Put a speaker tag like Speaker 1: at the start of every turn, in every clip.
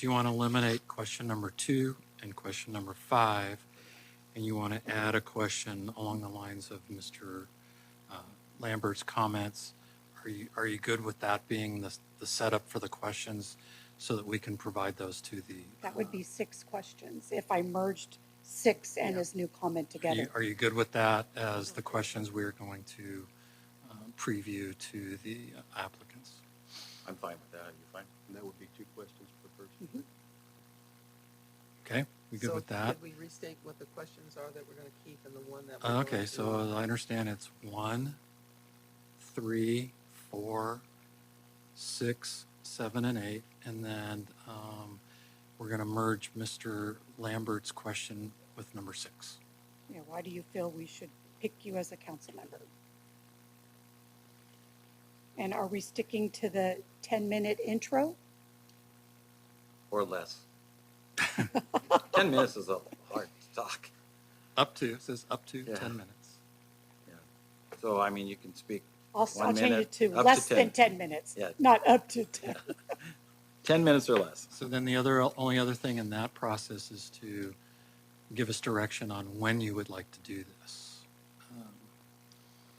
Speaker 1: Do you want to eliminate question number two and question number five? And you want to add a question along the lines of Mr. uh, Lambert's comments? Are you, are you good with that being the, the setup for the questions so that we can provide those to the?
Speaker 2: That would be six questions if I merged six and his new comment
Speaker 1: uh, Are you,
Speaker 2: together.
Speaker 1: are you good with that as the questions we're going to um, preview to the applicants?
Speaker 3: I'm fine with that. Are you fine? And that would be two questions per person.
Speaker 1: Okay, we good
Speaker 4: So
Speaker 1: with that?
Speaker 4: Did we restate what the questions are that we're going to keep and the one that? we're going
Speaker 1: Ah, Okay,
Speaker 4: to-
Speaker 1: so uh, as I understand it's one, three, four, six, seven, and eight. And then um, we're going to merge Mr. Lambert's question with number six.
Speaker 2: Yeah, why do you feel we should pick you as a council member? And are we sticking to the 10-minute intro?
Speaker 3: Or less. Ten minutes is a hard talk.
Speaker 1: Up to, it says up to
Speaker 3: Yeah.
Speaker 1: 10 minutes.
Speaker 3: So, I mean, you can speak,
Speaker 2: I'll, I'll
Speaker 3: One
Speaker 2: change it
Speaker 3: minute,
Speaker 2: to
Speaker 3: up to
Speaker 2: less than
Speaker 3: 10.
Speaker 2: 10 minutes,
Speaker 3: Yeah.
Speaker 2: not up to 10.
Speaker 3: ten minutes or less.
Speaker 1: So then the other, only other thing in that process is to give us direction on when you would like to do this. Um,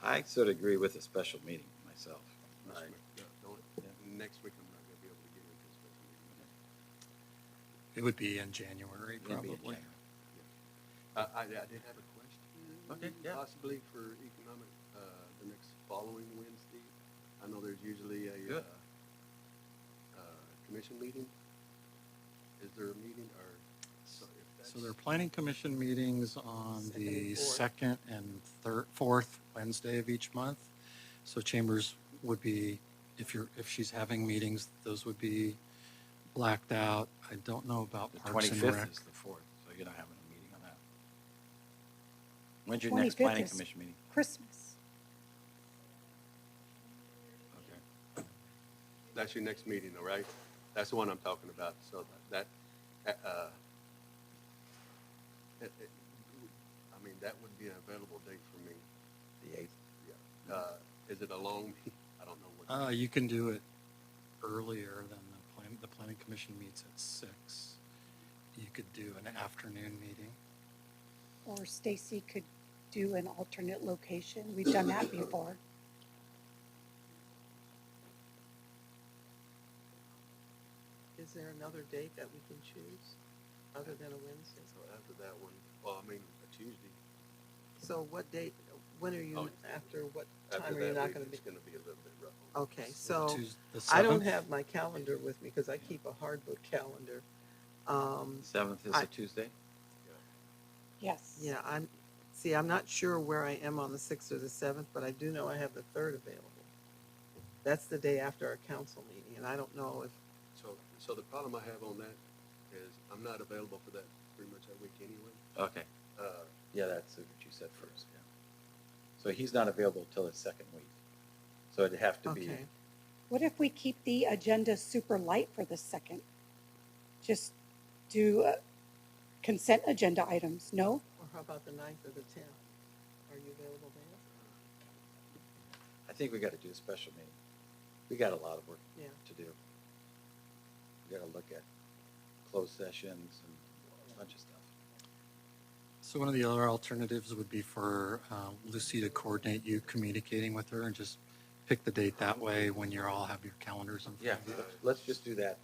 Speaker 3: I sort of agree with a special meeting myself.
Speaker 5: Next week, yeah, don't- Next week, I'm not gonna be able to get into this.
Speaker 1: It would be in January,
Speaker 3: It'd be in
Speaker 1: probably.
Speaker 3: January.
Speaker 5: Uh, I, I did have a question.
Speaker 3: Okay, yeah.
Speaker 5: Possibly for economic, uh, the next following Wednesday. I know there's usually a, uh,
Speaker 3: Good.
Speaker 5: uh, commission meeting. Is there a meeting or? so if
Speaker 1: So their
Speaker 5: that's-
Speaker 1: planning commission meetings on
Speaker 4: Second and
Speaker 1: the
Speaker 4: fourth.
Speaker 1: second and third, fourth Wednesday of each month. So chambers would be, if you're, if she's having meetings, those would be blacked out. I don't know about
Speaker 3: The
Speaker 1: Parks and Rec.
Speaker 3: twenty-fifth is the fourth, so you're not having a meeting on that. When's your next
Speaker 2: 25th
Speaker 3: planning
Speaker 2: is-
Speaker 3: commission meeting?
Speaker 2: Christmas.
Speaker 3: Okay.
Speaker 5: That's your next meeting, all right? That's the one I'm talking about, so that, that, uh, it- it- I mean, that would be an available date for me.
Speaker 3: The eighth.
Speaker 5: Uh, is it a long, meeting? I don't know what.
Speaker 1: Uh, you can do it earlier than the plan, the planning commission meets at six. You could do an afternoon meeting.
Speaker 2: Or Stacy could do an alternate location. We've done that before.
Speaker 4: Is there another date that we can choose other than a Wednesday?
Speaker 5: So after that one, well, I mean, a Tuesday.
Speaker 4: So what date, when are you,
Speaker 5: Oh.
Speaker 4: after what time
Speaker 5: After
Speaker 4: are you
Speaker 5: that
Speaker 4: not
Speaker 5: week,
Speaker 4: going to be? Oh.
Speaker 5: It's gonna be a little bit rough.
Speaker 4: Okay, so
Speaker 1: Tues- the
Speaker 4: I don't
Speaker 1: seventh?
Speaker 4: have my calendar with me because I keep a hard book calendar. Um,
Speaker 3: Seventh is
Speaker 4: I-
Speaker 3: a Tuesday?
Speaker 2: Yes.
Speaker 4: Yeah, I'm, see, I'm not sure where I am on the sixth or the seventh, but I do know I have the third available. That's the day after our council meeting, and I don't know if,
Speaker 5: So, so the problem I have on that is I'm not available for that pretty much that week anyway.
Speaker 3: Okay,
Speaker 5: Uh,
Speaker 3: yeah, that's what you said first, yeah. So he's not available till his second week. So it'd have to be,
Speaker 4: okay,
Speaker 2: What if we keep the agenda super light for the second? Just do uh, consent agenda items, no?
Speaker 4: or how about the ninth or the tenth? Are you available there?
Speaker 3: I think we gotta do a special meeting. We got a lot of work
Speaker 4: Yeah.
Speaker 3: to do. We gotta look at closed sessions and a bunch of stuff.
Speaker 1: So one of the other alternatives would be for uh, Lucy to coordinate you communicating with her and just pick the date that way when you all have your calendars in
Speaker 3: Yeah,
Speaker 1: front of you.
Speaker 3: let's- let's just do that.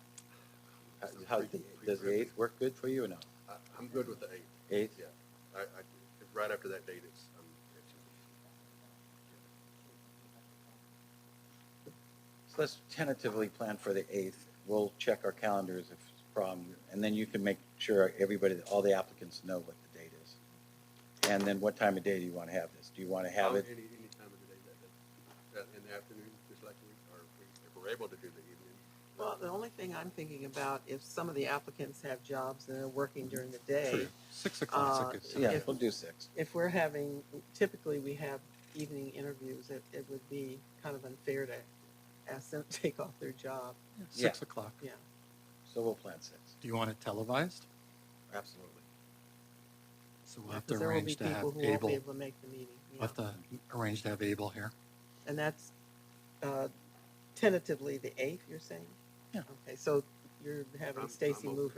Speaker 3: How- How, the- does the eighth work good for you or no?
Speaker 5: I, I'm good with the eighth.
Speaker 3: Eighth?
Speaker 5: Yeah. I, I, if right after that date, it's, I'm, it's,
Speaker 3: So let's tentatively plan for the eighth. We'll check our calendars if it's a problem, and then you can make sure everybody, all the applicants know what the date is. And then what time of day do you want to have this? Do you want to have
Speaker 5: I'm
Speaker 3: it?
Speaker 5: Oh, any, any time of the day that, that, that in the afternoon, just like we, or if we- if we're able to do the evening.
Speaker 4: Well, the only thing I'm thinking about, if some of the applicants have jobs and are working during the day,
Speaker 1: True. Six o'clock.
Speaker 4: Uh,
Speaker 3: Yeah,
Speaker 4: if-
Speaker 3: we'll do six.
Speaker 4: if we're having, typically we have evening interviews, it, it would be kind of unfair to ask them to take off their job,
Speaker 3: yeah.
Speaker 1: Six o'clock.
Speaker 4: yeah.
Speaker 3: So we'll plan six.
Speaker 1: Do you want it televised?
Speaker 3: Absolutely.
Speaker 1: So we'll have to
Speaker 4: Because there will
Speaker 1: arrange
Speaker 4: be
Speaker 1: to have
Speaker 4: people who won't
Speaker 1: Abel,
Speaker 4: be
Speaker 1: we'll
Speaker 4: able to make the meeting, yeah.
Speaker 1: have to arrange to have Abel here.
Speaker 4: And that's uh, tentatively the eighth, you're saying?
Speaker 1: Yeah.
Speaker 4: Okay, so you're you're having
Speaker 5: I'm-
Speaker 4: Stacy
Speaker 5: I'm
Speaker 4: move her